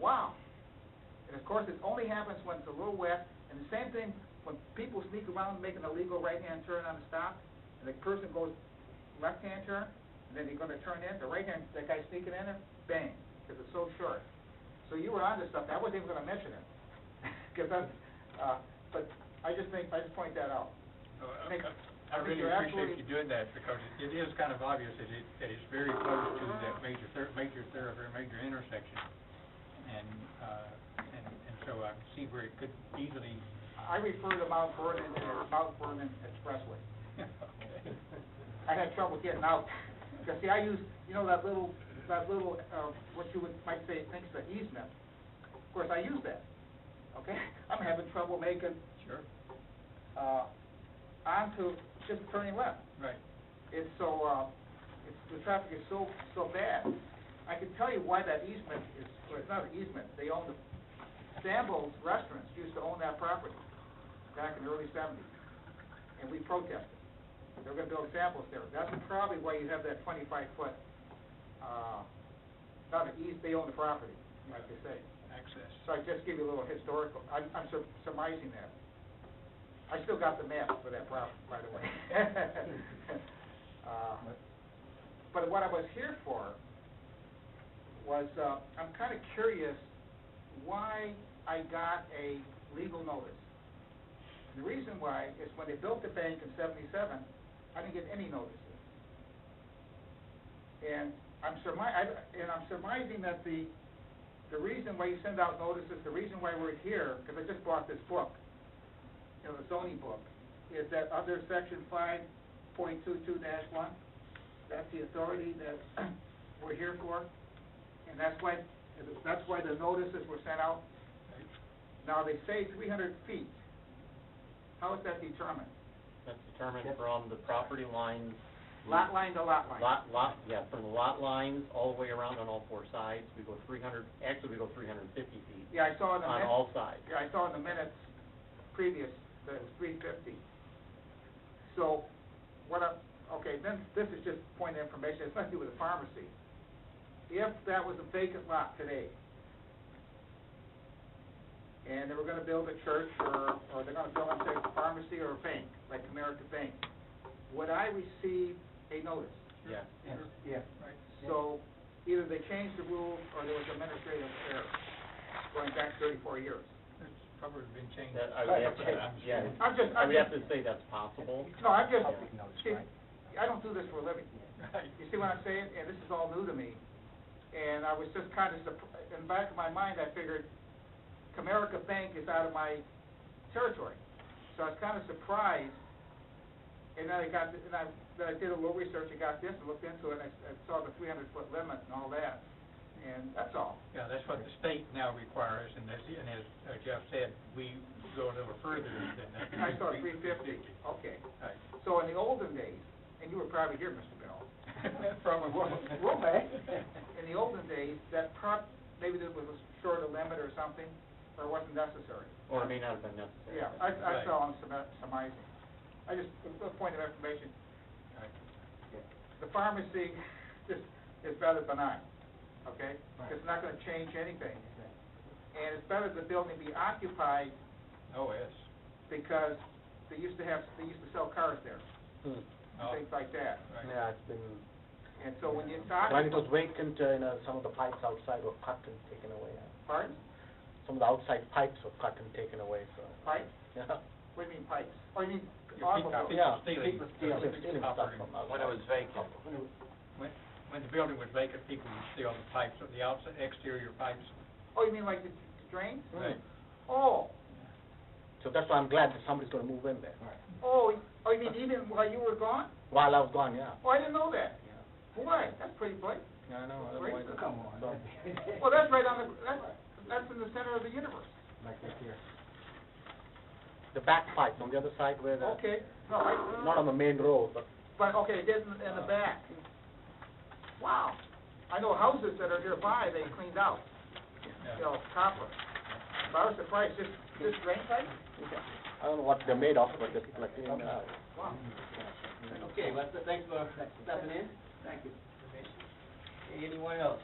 Wow. And of course, it only happens when it's a little wet, and the same thing when people sneak around making a legal right-hand turn on the stop, and the person goes left-hand turn, and then they're gonna turn in, the right-hand, that guy sneaking in there, bang, because it's so short. So you were onto something, I wasn't even gonna mention it, because I'm, uh, but I just think, I just point that out. Uh, I- Nick, I I think really you're appreciate absolutely- you doing that, because it- it is kind of obvious that it, that it's very close to that major, thor- major thoroughfare, major intersection. And, uh, and, and so I see where it could easily, I refer to Mount Vernon as Mount Vernon Expressway. okay. I had trouble getting out, because see, I use, you know, that little, that little, uh, what you would, might say, thinks the easement. Of course, I use that, okay? I'm having trouble making, Sure, uh, onto, just turning left. right. It's so, uh, it's, the traffic is so, so bad. I can tell you why that easement is, or it's not an easement, they own the, Sambo's Restaurants used to own that property back in the early seventies, and we protested. They were gonna build samples there. That's probably why you have that twenty-five foot, uh, not an eas, they own the property, like you say. Access. So I just give you a little historical, I'm, I'm sur- surmising that. I still got the map for that property, by the way. Uh, But what I was here for was, uh, I'm kind of curious why I got a legal notice. And the reason why is when they built the bank in seventy-seven, I didn't get any notices. And I'm surmi, I, and I'm surmising that the, the reason why you send out notices, the reason why we're here, because I just bought this book, you know, the zoning book, is that under section five point two-two one, that's the authority that we're here for, and that's why, that's why the notices were sent out. Now, they say three hundred feet. How is that determined? That's determined from the property lines. Lot line to lot line? Lot, lot, yeah, from the lot lines all the way around on all four sides, we go three hundred, actually, we go three hundred and fifty feet Yeah, I saw in the on minutes, all sides. yeah, I saw in the minutes previous that it was three fifty. So, what I, okay, then, this is just point of information, it's nothing to do with the pharmacy. If that was a vacant lot today, and they were gonna build a church, or, or they're gonna build, I'm saying, a pharmacy or a bank, like America Bank, would I receive a notice? Yes. Yeah. So either they changed the rules or there was administrative error going back thirty-four years. It's probably been changed. That, I would have to, I'm yeah, sure. I'm just, I I'm would have just, to say that's possible. no, I'm just, Public notice, see, I right. don't do this for a living. Right. You see what I'm saying? And this is all new to me. And I was just kind of surprised, in the back of my mind, I figured Comerica Bank is out of my territory. So I was kind of surprised. And then I got, and I, then I did a little research and got this and looked into it and I, I saw the three hundred foot limit and all that. And that's all. Yeah, that's what the state now requires, and as, and as uh, Jeff said, we go a little further than that. I saw three fifty, okay. Right. So in the olden days, and you were probably here, Mr. Bell, Probably Well, Mac, in the olden days, that prop, maybe there was a short a limit or something, or it wasn't necessary. Or it may not have been necessary. Yeah, I, I Right. saw on some, some icing. I just, a point of information, Right. the pharmacy just is rather benign, okay? It's not gonna change anything. And it's better the building be occupied Oh, yes. because they used to have, they used to sell cars there, Hmm. Oh, things like that. right. Yeah, it's been, And so when it's when it occupied, was vacant, uh, you know, some of the pipes outside were cut and taken away. uh, pardon, Some of the outside pipes were cut and taken away, so, pipes? yeah. What do you mean pipes? Oh, you mean Your people- automobiles? people Yeah. stealing- People stealing- people stealing copper stuff and- from outside. When it was vacant. When, when the building was vacant, people would steal the pipes, the outside exterior pipes. Oh, you mean like the drains? Right. Oh, So that's why I'm glad that somebody's gonna move in there. oh, oh, you mean even while you were gone? While I was gone, yeah. Oh, I didn't know that. Boy, that's pretty bright. Yeah, I know, Great. otherwise. it's- Come on. so- Well, that's right on the, that's, that's in the center of the universe. Like this here. The back pipe on the other side where the, Okay, no, I. not on the main road, but But, okay, it is in, in the back. Wow. I know houses that are nearby, they cleaned out, you know, copper. But I was surprised, just, just drain pipe? I don't know what they're made of, but it's like, you know, Wow. Okay, well, th- thanks for stepping in. Thank you. Anyone else?